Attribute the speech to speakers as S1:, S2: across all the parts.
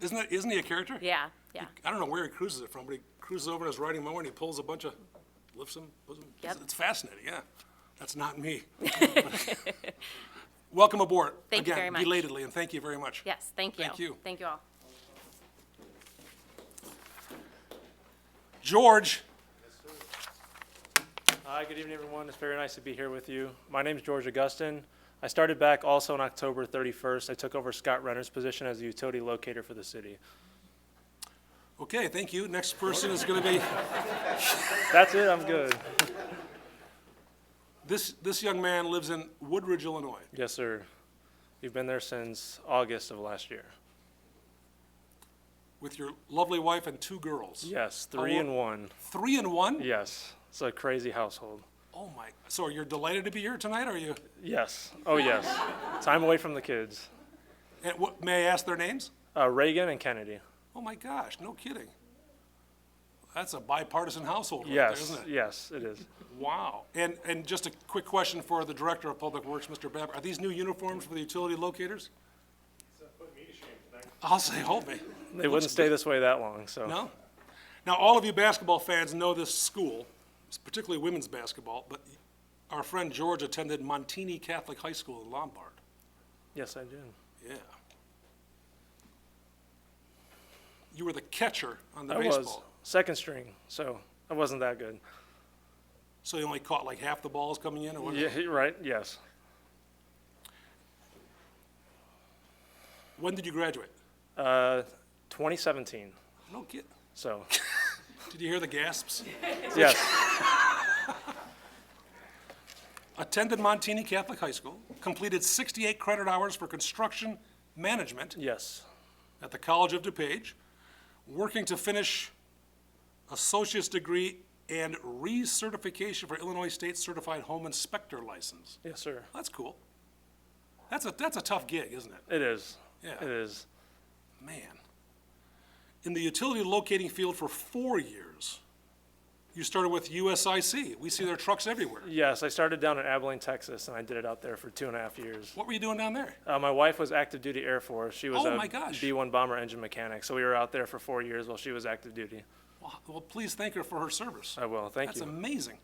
S1: Isn't that, isn't he a character?
S2: Yeah, yeah.
S1: I don't know where he cruises it from, but he cruises over in his riding mower and he pulls a bunch of, lifts them, pulls them. It's-
S2: Yep.
S1: It's fascinating, yeah. That's not me. Welcome aboard.
S2: Thank you very
S1: Again,
S2: much.
S1: belatedly, and thank you very much.
S2: Yes, thank you.
S1: Thank you.
S2: Thank you all.
S1: George,
S3: Hi, good evening, everyone. It's very nice to be here with you. My name is George Augustin. I started back also on October 31st. I took over Scott Renner's position as the utility locator for the city.
S1: okay, thank you. Next person is gonna be,
S3: That's it, I'm good.
S1: this, this young man lives in Woodridge, Illinois.
S3: Yes, sir. You've been there since August of last year.
S1: with your lovely wife and two girls.
S3: Yes, three
S1: lo-
S3: and one.
S1: Three and one?
S3: Yes, it's a crazy household.
S1: Oh my, so you're delighted to be here tonight, are you?
S3: Yes, oh yes. Time away from the kids.
S1: And what, may I ask their names?
S3: Uh, Reagan and Kennedy.
S1: Oh my gosh, no kidding. That's a bipartisan household right there,
S3: Yes,
S1: isn't it?
S3: yes, it is.
S1: Wow. And, and just a quick question for the Director of Public Works, Mr. Babbitt. Are these new uniforms for the utility locators? I'll say, hope me.
S3: They wouldn't stay this way that long, so.
S1: No? Now, all of you basketball fans know this school, particularly women's basketball, but our friend George attended Montini Catholic High School in Lombard.
S3: Yes, I do.
S1: Yeah. You were the catcher on the
S3: I
S1: baseball.
S3: was second string, so I wasn't that good.
S1: So you only caught like half the balls coming in or what?
S3: Yeah, right, yes.
S1: When did you graduate?
S3: Uh, 2017,
S1: No kid.
S3: so,
S1: Did you hear the gasps?
S3: yes,
S1: Attended Montini Catholic High School, completed 68 credit hours for construction management
S3: yes,
S1: at the College of DuPage, working to finish associate's degree and recertification for Illinois State Certified Home Inspector license.
S3: yes, sir.
S1: That's cool. That's a, that's a tough gig, isn't it?
S3: It is.
S1: Yeah.
S3: It is.
S1: Man. In the utility locating field for four years. You started with USIC. We see their trucks everywhere.
S3: Yes, I started down in Abilene, Texas, and I did it out there for two and a half years.
S1: What were you doing down there?
S3: Uh, my wife was active duty Air Force. She was
S1: Oh,
S3: a
S1: my gosh.
S3: B-1 bomber engine mechanic, so we were out there for four years while she was active duty.
S1: Well, h- well, please thank her for her service.
S3: I will, Oh, thank
S1: That's
S3: you.
S1: amazing.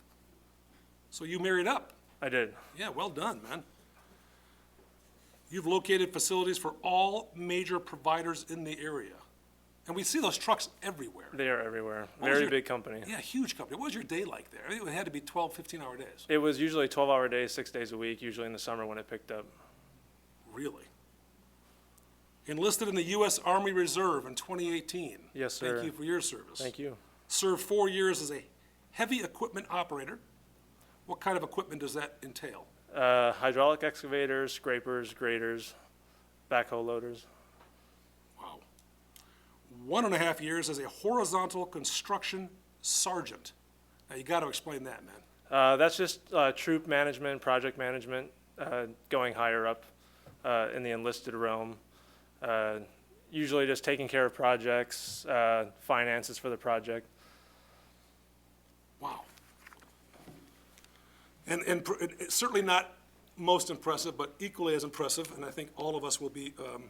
S1: So you married up.
S3: I did.
S1: Yeah, well done, man. You've located facilities for all major providers in the area. And we see those trucks everywhere.
S3: They are everywhere.
S1: was
S3: Very
S1: your-
S3: big company.
S1: Oh, Yeah, huge company. What was your day like there? I mean, It had to be 12, 15-hour days.
S3: It was usually 12-hour days, six days a week, usually in the summer when it picked up.
S1: Really? Enlisted in the U.S. Army Reserve in 2018.
S3: Yes, sir.
S1: Thank you for your service.
S3: Thank you.
S1: Served four years as a heavy equipment operator. What kind of equipment does that entail?
S3: Uh, hydraulic excavators, scrapers, graders, backhoe loaders.
S1: Wow. One and a half years as a horizontal construction sergeant. Now, you got to explain that, man.
S3: Uh, that's just uh, troop management, project management, uh, going higher up uh, in the enlisted realm. Uh, usually just taking care of projects, uh, finances for the project.
S1: Wow. And, and pr- it- it's certainly not most impressive, but equally as impressive, and I think all of us will be um,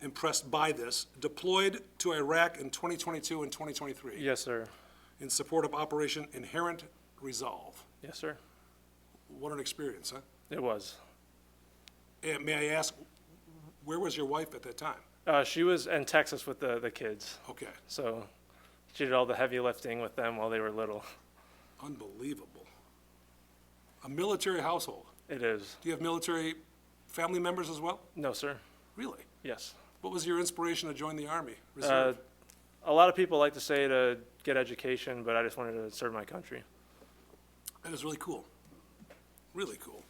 S1: impressed by this, deployed to Iraq in 2022 and 2023
S3: Yes, sir.
S1: in support of Operation Inherent Resolve.
S3: Yes, sir.
S1: What an experience, huh?
S3: It was.
S1: And may I ask, where was your wife at that time?
S3: Uh, she was in Texas with the, the kids,
S1: Okay,
S3: so she did all the heavy lifting with them while they were little.
S1: unbelievable. A military household.
S3: It is.
S1: Do you have military family members as well?
S3: No, sir.
S1: Really?
S3: Yes.
S1: What was your inspiration to join the Army
S3: Uh,
S1: Reserve?
S3: a lot of people like to say to get education, but I just wanted to serve my country.
S1: That is really cool. Really cool.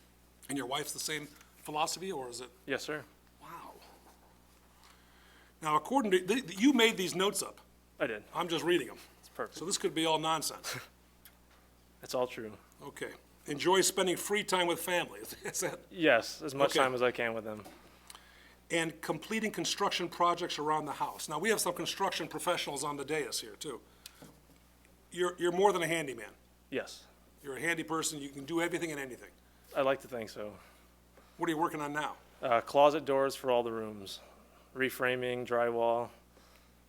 S1: And your wife's the same philosophy, or is it?
S3: Yes, sir.
S1: Wow. Now, according to, th- th- you made these notes up.
S3: I did.
S1: I'm just reading them.
S3: It's perfect.
S1: So this could be all nonsense.
S3: It's all true.
S1: Okay. Enjoy spending free time with family. Is that?
S3: Yes, as much
S1: Okay.
S3: time as I can with them.
S1: And completing construction projects around the house. Now, we have some construction professionals on the dais here, too. You're, you're more than a handyman.
S3: Yes,
S1: You're a handy person. You can do everything and anything.
S3: I like to think so.
S1: What are you working on now?
S3: Uh, closet doors for all the rooms, reframing, drywall,